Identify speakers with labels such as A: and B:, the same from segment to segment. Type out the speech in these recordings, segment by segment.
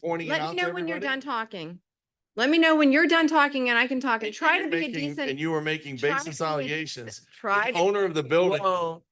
A: pointing it
B: Let
A: out
B: me
A: to
B: know when you're done
A: everybody?
B: talking. Let me know when you're done talking and I can talk and
A: And
B: try
A: you're
B: to be a
A: making- And
B: decent.
A: you were making
B: try
A: baseless
B: to be a-
A: allegations.
B: Try
A: The
B: to.
A: Owner of the building,
B: Whoa.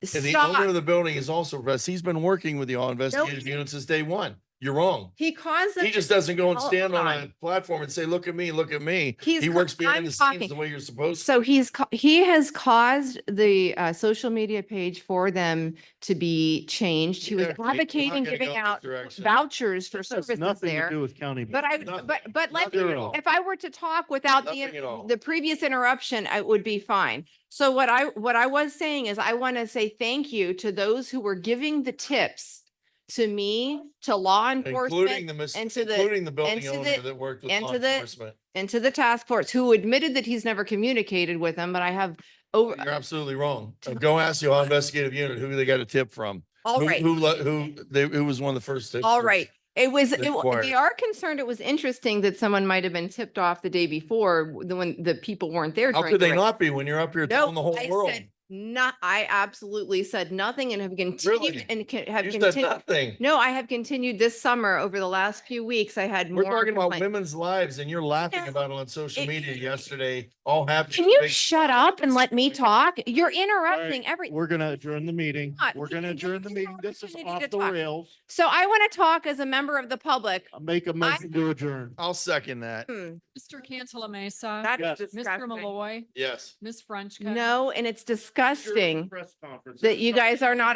A: and the owner of
B: Stop.
A: the building is also, Russ, he's been working with the all investigative
B: he-
A: unit since day one. You're wrong.
B: He caused.
A: He
B: them-
A: just doesn't go and
B: all
A: stand on a
B: time.
A: platform and say, look at me, look at me.
B: Oh, He's
A: He
B: ca-
A: works
B: I'm
A: behind the scenes
B: talking.
A: the way you're supposed to.
B: So he's, ca- he has caused the uh, social media page for them to be changed. He was
A: Yeah, we're not
B: advocating
A: gonna go
B: giving
A: in this
B: out
A: direction.
B: vouchers for
C: This has
B: services
C: nothing to
B: there.
C: Do with county.
B: But I,
A: Nothing.
B: but, but let
A: Nothing at all.
B: if I were to talk without the,
A: Nothing at all.
B: inter- the previous interruption, it would be fine. So what I, what I was saying is I want to say thank you to those who were giving the tips to me, to law
A: Including
B: enforcement
A: the, mis-
B: and to the-
A: including the building
B: to
A: owner
B: the-
A: that worked with
B: and
A: law
B: to the-
A: enforcement.
B: and to the task force who admitted that he's never communicated with them, but I have over,
A: You're absolutely wrong. Uh, Go ask the all investigative unit who they got a tip from.
B: all
A: Who-
B: right.
A: Who, let- who, they, who was one of the first. tips
B: All
A: first?
B: right. It was,
A: the
B: it w-
A: choir.
B: they are concerned. It was interesting that someone might have been tipped off the day before w- the when the people weren't there.
A: How
B: during
A: could
B: the
A: they
B: race.
A: not be when you're up here telling the
B: No,
A: whole
B: I
A: world?
B: said not, I absolutely said nothing and have continued
A: Really?
B: and can- have
A: You said
B: continued.
A: nothing.
B: No, I have continued this summer. Over the last few weeks, I had
A: We're
B: more.
A: talking about
B: complaints.
A: women's lives and you're laughing
B: No,
A: about it on social
B: it-
A: media yesterday, all happy.
B: Can you
A: big-
B: shut up and let me talk? You're interrupting every,
C: We're gonna adjourn the meeting.
B: not.
C: We're
B: You-
C: gonna
B: you
C: adjourn
B: give
C: the
B: me
C: meeting.
B: the
C: This is
B: opportunity to
C: off the
B: talk.
C: rails.
B: so I want to talk as a member of the public.
C: I'll Make a motion to adjourn.
A: I'll second that.
B: Hmm,
D: Mr. Cantala Mesa,
B: That
C: Yes.
B: is
D: Mr.
B: disgusting.
D: Malloy,
A: Yes.
D: Ms. Frenchco.
B: No, and it's disgusting
C: Press conference.
B: that you guys are not